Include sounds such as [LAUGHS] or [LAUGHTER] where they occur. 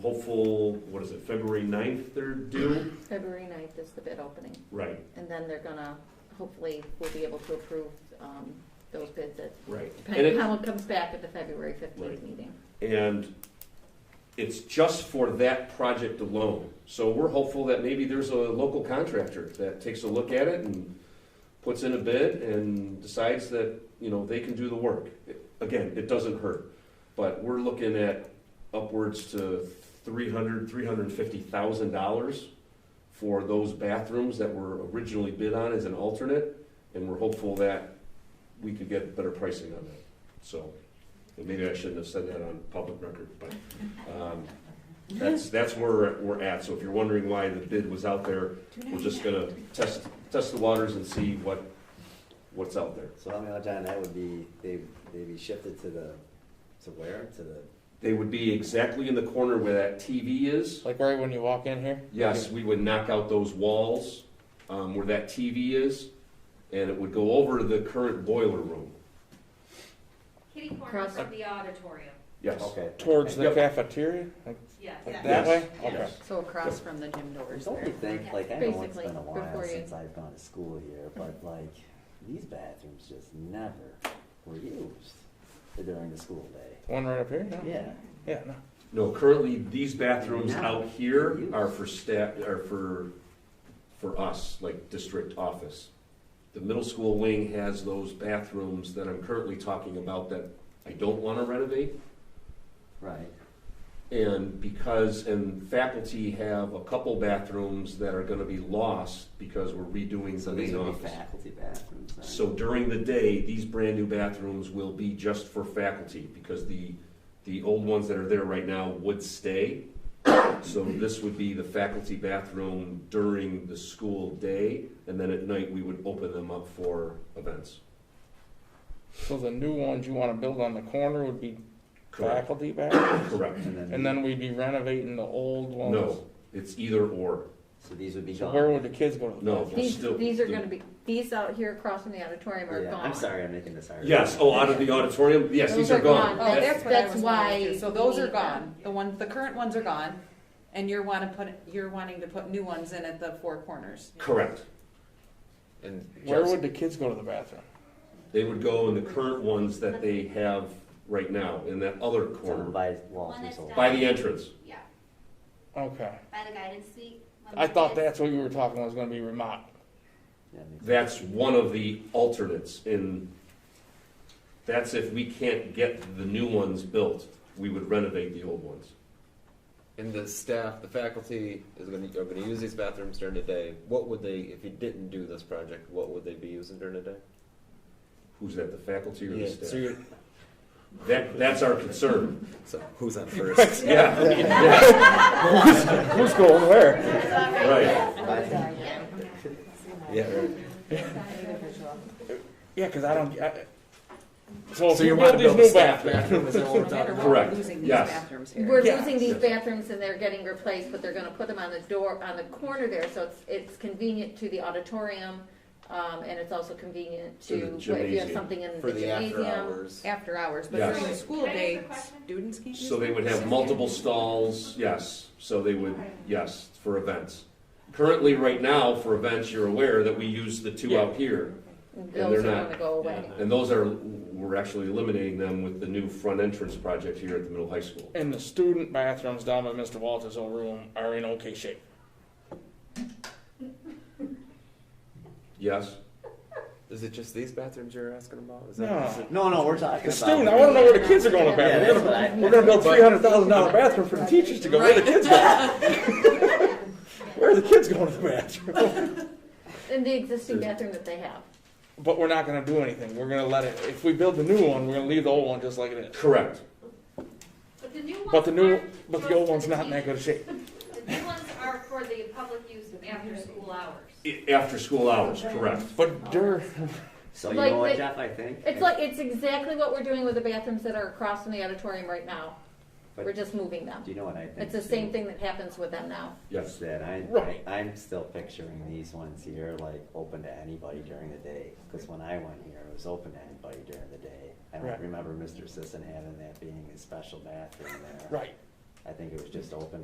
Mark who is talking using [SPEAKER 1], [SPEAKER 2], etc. [SPEAKER 1] hopeful, what is it, February 9th they're due?
[SPEAKER 2] February 9th is the bid opening,
[SPEAKER 1] Right,
[SPEAKER 2] and then they're gonna, hopefully, we'll be able to approve um, those bids at,
[SPEAKER 1] right. And
[SPEAKER 2] depending
[SPEAKER 1] it,
[SPEAKER 2] on how it comes back at the February 15th
[SPEAKER 1] Right.
[SPEAKER 2] meeting.
[SPEAKER 1] and it's just for that project alone. So we're hopeful that maybe there's a local contractor that takes a look at it and puts in a bid and decides that, you know, they can do the work. Again, it doesn't hurt, but we're looking at upwards to three hundred, three hundred and fifty thousand dollars for those bathrooms that were originally bid on as an alternate, and we're hopeful that we could get better pricing on that, so. And maybe I shouldn't have said that on public record, but um, that's, that's where we're at. So if you're wondering why the bid was out there, we're just gonna test, test the waters and see what, what's out there.
[SPEAKER 3] So how many odds on that would be, they, they'd be shifted to the, to where, to the,
[SPEAKER 1] They would be exactly in the corner where that TV is.
[SPEAKER 4] Like right when you walk in here?
[SPEAKER 1] Yes, we would knock out those walls um, where that TV is, and it would go over to the current boiler room.
[SPEAKER 5] Kitty
[SPEAKER 2] Cross-
[SPEAKER 5] corners of the auditorium,
[SPEAKER 1] Yes.
[SPEAKER 3] okay.
[SPEAKER 4] Towards the
[SPEAKER 1] Yep.
[SPEAKER 4] cafeteria? Like
[SPEAKER 5] yes.
[SPEAKER 4] like
[SPEAKER 1] Yes.
[SPEAKER 4] that way? Okay.
[SPEAKER 1] Yes.
[SPEAKER 2] So across from the gym doors
[SPEAKER 3] Don't you think, like, I know it's
[SPEAKER 2] Basically,
[SPEAKER 3] been a
[SPEAKER 2] before
[SPEAKER 3] while
[SPEAKER 2] you-
[SPEAKER 3] since I've gone to school here, but like, these bathrooms just never were used during the school day.
[SPEAKER 4] The one right up here? No?
[SPEAKER 3] Yeah.
[SPEAKER 4] Yeah, no.
[SPEAKER 1] No, currently, these bathrooms
[SPEAKER 3] No.
[SPEAKER 1] out here are for staff, are for, for us, like district office. The middle school wing has those bathrooms that I'm currently talking about that I don't want to renovate.
[SPEAKER 3] Right.
[SPEAKER 1] And because, and faculty have a couple bathrooms that are going to be lost because we're redoing the
[SPEAKER 3] So these
[SPEAKER 1] main
[SPEAKER 3] would be
[SPEAKER 1] office.
[SPEAKER 3] faculty bathrooms then?
[SPEAKER 1] So during the day, these brand-new bathrooms will be just for faculty, because the, the old ones that are there right now would stay. So this would be the faculty bathroom during the school day, and then at night, we would open them up for events.
[SPEAKER 4] So the new ones you want to build on the corner would be
[SPEAKER 1] Correct,
[SPEAKER 4] faculty back?
[SPEAKER 1] correct.
[SPEAKER 4] And then we'd be renovating the old ones?
[SPEAKER 1] No, it's either or.
[SPEAKER 3] So these would be
[SPEAKER 4] So where
[SPEAKER 3] gone?
[SPEAKER 4] would the kids go to the
[SPEAKER 1] No.
[SPEAKER 4] bathroom?
[SPEAKER 2] These,
[SPEAKER 1] Still-
[SPEAKER 2] these are
[SPEAKER 1] the-
[SPEAKER 2] gonna be, these out here across from the auditorium are
[SPEAKER 3] Yeah,
[SPEAKER 2] gone.
[SPEAKER 3] I'm sorry, I'm making this hard.
[SPEAKER 1] Yes, oh, out of the auditorium, yes, these
[SPEAKER 2] Those
[SPEAKER 1] are
[SPEAKER 2] are
[SPEAKER 1] gone.
[SPEAKER 2] gone.
[SPEAKER 6] Oh,
[SPEAKER 1] That's-
[SPEAKER 6] that's uh, what I
[SPEAKER 2] that's
[SPEAKER 6] was
[SPEAKER 2] why
[SPEAKER 6] wondering, too. So
[SPEAKER 2] we
[SPEAKER 6] those are
[SPEAKER 2] need
[SPEAKER 6] gone,
[SPEAKER 2] them.
[SPEAKER 6] the ones, the current ones are gone, and you're wanna put, you're wanting to put new ones in at the four corners.
[SPEAKER 1] Correct.
[SPEAKER 7] And
[SPEAKER 4] Where
[SPEAKER 7] Jeff's-
[SPEAKER 4] would the kids go to the bathroom?
[SPEAKER 1] They would go in the current ones that they have right now, in that other
[SPEAKER 3] Someone
[SPEAKER 1] corner,
[SPEAKER 3] buys walls
[SPEAKER 5] One
[SPEAKER 3] or
[SPEAKER 5] that's
[SPEAKER 3] something.
[SPEAKER 1] by the entrance.
[SPEAKER 5] Yeah,
[SPEAKER 4] Okay.
[SPEAKER 5] by the guidance suite. when
[SPEAKER 4] I
[SPEAKER 5] the
[SPEAKER 4] thought
[SPEAKER 5] kids-
[SPEAKER 4] that's what you were talking about was going to be remodeled.
[SPEAKER 3] Yeah, makes-
[SPEAKER 1] That's one of the alternates in, that's if we can't get the new ones built, we would renovate the old ones.
[SPEAKER 7] and the staff, the faculty is going to are going to use these bathrooms during the day. What would they, if you didn't do this project, what would they be using during the day?
[SPEAKER 1] Who's that, the faculty or the
[SPEAKER 7] Yeah, so
[SPEAKER 1] staff?
[SPEAKER 7] you're,
[SPEAKER 1] That, that's our
[SPEAKER 7] [LAUGHS]
[SPEAKER 1] concern,
[SPEAKER 7] so who's on first?
[SPEAKER 1] yeah.
[SPEAKER 7] [LAUGHS]
[SPEAKER 4] Who's going where?
[SPEAKER 1] Right,
[SPEAKER 7] yeah. Right.
[SPEAKER 4] Yeah, because I don't. I, so if
[SPEAKER 7] So
[SPEAKER 4] you
[SPEAKER 7] you
[SPEAKER 4] build
[SPEAKER 7] want to
[SPEAKER 4] these
[SPEAKER 7] build a
[SPEAKER 4] new
[SPEAKER 7] staff
[SPEAKER 4] bathrooms,
[SPEAKER 7] bathroom? Is that
[SPEAKER 6] No
[SPEAKER 7] what we're
[SPEAKER 6] matter
[SPEAKER 7] talking
[SPEAKER 6] what,
[SPEAKER 7] about?
[SPEAKER 6] we're
[SPEAKER 1] Correct.
[SPEAKER 6] losing these
[SPEAKER 1] Yes.
[SPEAKER 6] bathrooms here.
[SPEAKER 2] We're
[SPEAKER 4] Yeah.
[SPEAKER 2] losing these
[SPEAKER 1] Yes.
[SPEAKER 2] bathrooms and they're getting replaced, but they're gonna put them on the door, on the corner there, so it's, it's convenient to the auditorium, um, and it's also convenient
[SPEAKER 1] To the
[SPEAKER 2] to, what if you have
[SPEAKER 1] gymnasium.
[SPEAKER 2] something in
[SPEAKER 7] For
[SPEAKER 2] the
[SPEAKER 7] the after
[SPEAKER 2] gymnasium.
[SPEAKER 7] hours.
[SPEAKER 6] After hours, but
[SPEAKER 1] Yes.
[SPEAKER 6] during the school
[SPEAKER 5] Can I ask a
[SPEAKER 6] day,
[SPEAKER 5] question?
[SPEAKER 6] students can use.
[SPEAKER 1] so they would have
[SPEAKER 6] them.
[SPEAKER 1] multiple stalls, yes, so they would, yes, for events. Currently, right now, for events, you're aware that we use the two out here, they're
[SPEAKER 2] Those are
[SPEAKER 1] not-
[SPEAKER 2] gonna go away.
[SPEAKER 1] and those are, we're actually eliminating them with the new front entrance project here at the middle high school.
[SPEAKER 4] and the student bathrooms down by Mr. Walters' old room are in okay shape.
[SPEAKER 1] Yes?
[SPEAKER 7] Is it just these bathrooms you're asking about? Is
[SPEAKER 4] No.
[SPEAKER 7] is it-
[SPEAKER 3] No, no, we're talking
[SPEAKER 4] The
[SPEAKER 3] about.
[SPEAKER 4] student, I wanna know where the kids are going to
[SPEAKER 3] Yeah, that's
[SPEAKER 4] bathroom.
[SPEAKER 3] what I-
[SPEAKER 4] We're gonna build three hundred thousand dollar bathroom for the teachers to go, where the kids going? [LAUGHS] Where are the kids going to the bathroom?
[SPEAKER 2] In the existing bathroom that they have.
[SPEAKER 4] But we're not gonna do anything, we're gonna let it, if we build the new one, we're gonna leave the old one just like it is.
[SPEAKER 1] Correct.
[SPEAKER 5] But the new ones.
[SPEAKER 4] But the new,
[SPEAKER 5] aren't
[SPEAKER 4] but
[SPEAKER 5] just
[SPEAKER 4] the old
[SPEAKER 5] for
[SPEAKER 4] one's not in that
[SPEAKER 5] teachers.
[SPEAKER 4] good shape.
[SPEAKER 5] The new ones are for the public use after school hours.
[SPEAKER 1] I- After school hours, correct.
[SPEAKER 4] But dur,
[SPEAKER 3] So you
[SPEAKER 2] Like
[SPEAKER 3] know what,
[SPEAKER 2] the-
[SPEAKER 3] Jeff, I think?
[SPEAKER 2] It's like, it's exactly what we're doing with the bathrooms that are across from the auditorium right now.
[SPEAKER 3] But-
[SPEAKER 2] We're just moving them.
[SPEAKER 3] Do you know what I think?
[SPEAKER 2] It's the
[SPEAKER 3] too?
[SPEAKER 2] same thing that happens with them now.
[SPEAKER 3] Is
[SPEAKER 1] Yes.
[SPEAKER 3] that I,
[SPEAKER 4] Right.
[SPEAKER 3] I, I'm still picturing these ones here like open to anybody during the day. Because when I went here, it was open to anybody during the day. I
[SPEAKER 4] Right.
[SPEAKER 3] don't remember Mr. Sisson having that being his special bathroom there.
[SPEAKER 4] right,
[SPEAKER 3] I think it was just open